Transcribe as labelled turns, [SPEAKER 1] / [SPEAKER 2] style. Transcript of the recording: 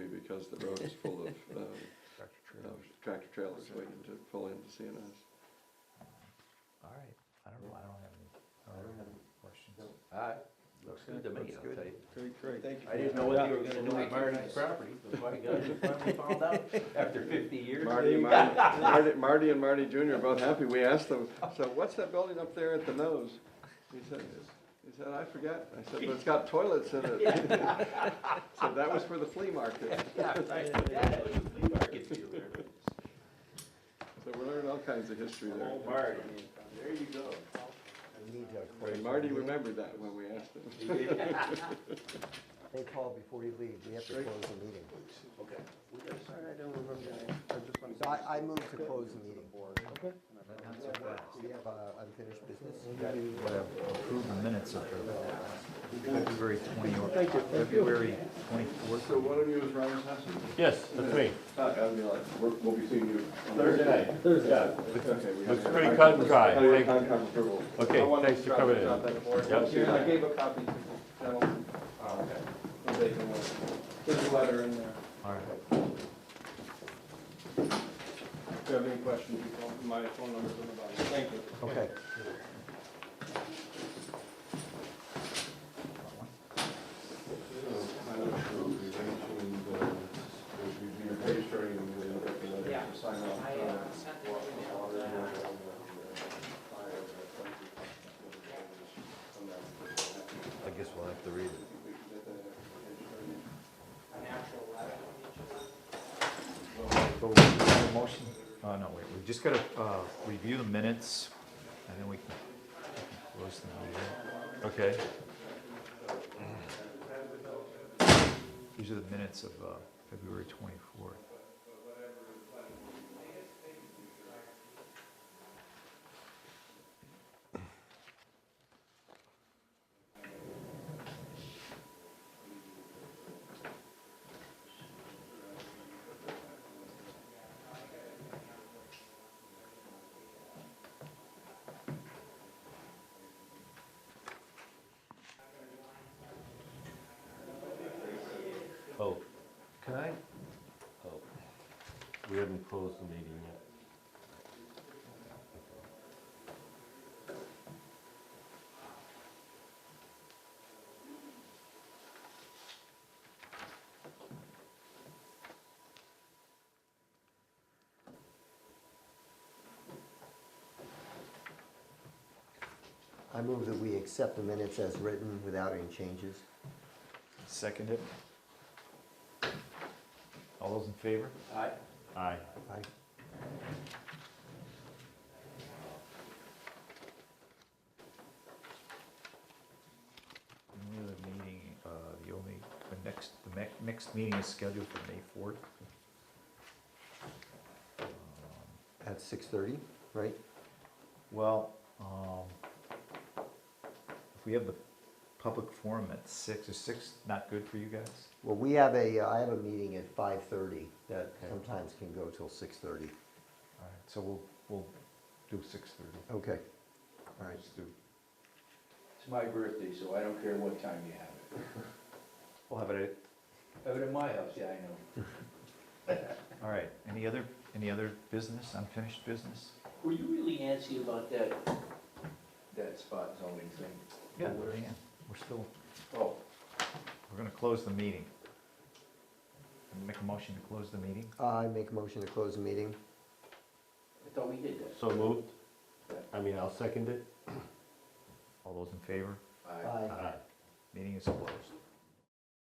[SPEAKER 1] because the road is full of, uh,
[SPEAKER 2] Tractor
[SPEAKER 1] of
[SPEAKER 2] trailer.
[SPEAKER 1] tractor trailers waiting to pull into CNS.
[SPEAKER 2] All right, I don't know, I don't have any, I don't have any questions.
[SPEAKER 3] Uh, looks good to me, I'll tell you.
[SPEAKER 1] Great, great. Thank you.
[SPEAKER 3] I didn't know what you were gonna do with Marty's property, but by God, you finally found out after fifty years.
[SPEAKER 1] Marty, Marty, Marty- Marty and Marty Junior are both happy. We asked them, so what's that building up there at the nose? He said, he said, I forgot. I said, but it's got toilets in it. So that was for the flea market.
[SPEAKER 3] Yeah, right, yeah, that was a flea market deal there.
[SPEAKER 1] So we're learning all kinds of history there.
[SPEAKER 3] Old Marty, there you go.
[SPEAKER 4] We need to
[SPEAKER 1] And Marty remembered that when we asked him.
[SPEAKER 3] He did-
[SPEAKER 4] Hey, Paul, before you leave, we have to close the meeting.
[SPEAKER 3] Okay. We got a second.
[SPEAKER 4] So I, I move to close the meeting. We have uh, unfinished business.
[SPEAKER 2] Approve the minutes of the February twenty, February twenty-fourth.
[SPEAKER 5] So one of you is Ryan Sampson?
[SPEAKER 6] Yes, that's me.
[SPEAKER 1] Oh,
[SPEAKER 5] I'll be like, we're- we'll be seeing you. on
[SPEAKER 6] Thursday. Yeah,
[SPEAKER 5] Okay, we
[SPEAKER 6] looks
[SPEAKER 5] have-
[SPEAKER 6] pretty cut and dry.
[SPEAKER 5] Oh, you're
[SPEAKER 6] Thank-
[SPEAKER 5] con- con- approval.
[SPEAKER 6] Okay,
[SPEAKER 5] I wanted
[SPEAKER 6] thanks
[SPEAKER 5] to
[SPEAKER 6] for coming in.
[SPEAKER 5] drop that board.
[SPEAKER 6] Yep.
[SPEAKER 5] Yeah, I gave
[SPEAKER 1] a copy to the gentleman.
[SPEAKER 5] Oh, okay.
[SPEAKER 1] So they can, uh, There's a letter in there.
[SPEAKER 2] All right.
[SPEAKER 1] If you have any questions, you call, my phone number's on the bottom. Thank you.
[SPEAKER 4] Okay.
[SPEAKER 5] Yeah.
[SPEAKER 7] I uh, sent an email that
[SPEAKER 2] I guess we'll have to read it.
[SPEAKER 7] an actual letter from each of them.
[SPEAKER 2] So we have a motion, oh, no, wait, we just gotta, uh, review the minutes, and then we can close them out here. Okay. These are the minutes of, uh, February twenty-fourth.
[SPEAKER 6] Oh,
[SPEAKER 2] Can I?
[SPEAKER 6] oh. We haven't closed the meeting yet.
[SPEAKER 4] I move that we accept the minutes as written without any changes.
[SPEAKER 2] Second it. All those in favor?
[SPEAKER 3] Aye.
[SPEAKER 6] Aye.
[SPEAKER 4] Aye.
[SPEAKER 2] The other meeting, uh, the only, the next, the me- next meeting is scheduled for May fourth.
[SPEAKER 4] At 6:30, right?
[SPEAKER 2] Well, um, if we have the public forum at six, is six not good for you guys?
[SPEAKER 4] Well, we have a, uh, I have a meeting at 5:30 that sometimes can go till 6:30.
[SPEAKER 2] All right, so we'll, we'll do six thirty.
[SPEAKER 4] Okay. All right.
[SPEAKER 3] It's my birthday, so I don't care what time you have it.
[SPEAKER 2] We'll have it
[SPEAKER 3] Have it in my house, yeah, I know.
[SPEAKER 2] at, all right, any other, any other business, unfinished business?
[SPEAKER 3] Were you really antsy about that, that spot zoning thing?
[SPEAKER 2] Yeah, we're in, we're still,
[SPEAKER 3] Oh,
[SPEAKER 2] we're gonna close the meeting. Make a motion to close the meeting?
[SPEAKER 4] I make a motion to close the meeting.
[SPEAKER 3] I thought we did that.
[SPEAKER 6] So moved? I mean, I'll second it.
[SPEAKER 2] All those in favor?
[SPEAKER 3] Aye.
[SPEAKER 4] Aye.
[SPEAKER 6] Aye.
[SPEAKER 2] Meeting is closed.